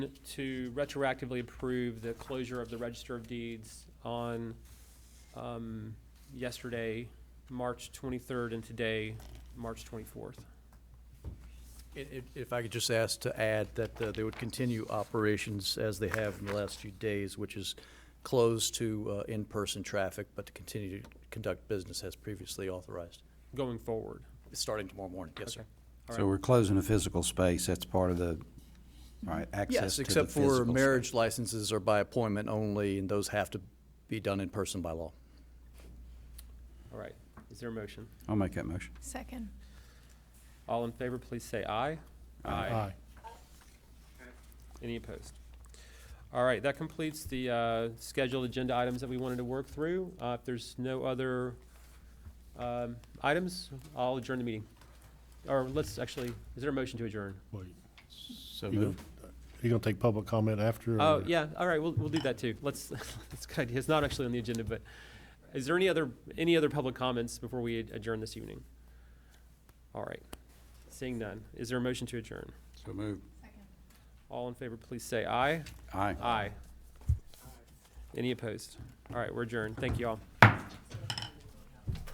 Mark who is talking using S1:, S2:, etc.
S1: to retroactively approve the closure of the Register of Deeds on um, yesterday, March 23rd, and today, March 24th.
S2: If, if- if I could just ask to add that uh, they would continue operations as they have in the last few days, which is closed to uh, in-person traffic, but to continue to conduct business as previously authorized,
S1: Going forward.
S2: starting tomorrow morning. Yes, sir.
S1: Okay. All
S3: So
S1: right.
S3: we're closing a physical space, that's part of the, all right, access
S2: Yes,
S3: to the
S2: except
S3: physical
S2: for
S3: space.
S2: marriage licenses are by appointment only, and those have to be done in person by law.
S1: All right. Is there a motion?
S3: I'll make that motion.
S4: Second.
S1: All in favor, please say aye.
S5: Aye.
S1: Any opposed? All right, that completes the uh, scheduled agenda items that we wanted to work through. Uh, If there's no other um, items, I'll adjourn the meeting. Or let's actually, is there a motion to adjourn?
S5: Wait,
S3: So
S5: You gonna-
S3: moved.
S5: you gonna take public comment after? or-
S1: Oh, yeah, all right, we'll, we'll do that too. Let's, that's a good idea. It's not actually on the agenda, but is there any other, any other public comments before we adjourn this evening? All right, seeing none. Is there a motion to adjourn?
S3: So moved.
S1: All in favor, please say aye.
S3: Aye.
S1: Aye. Any opposed? All right, we're adjourned. Thank you all.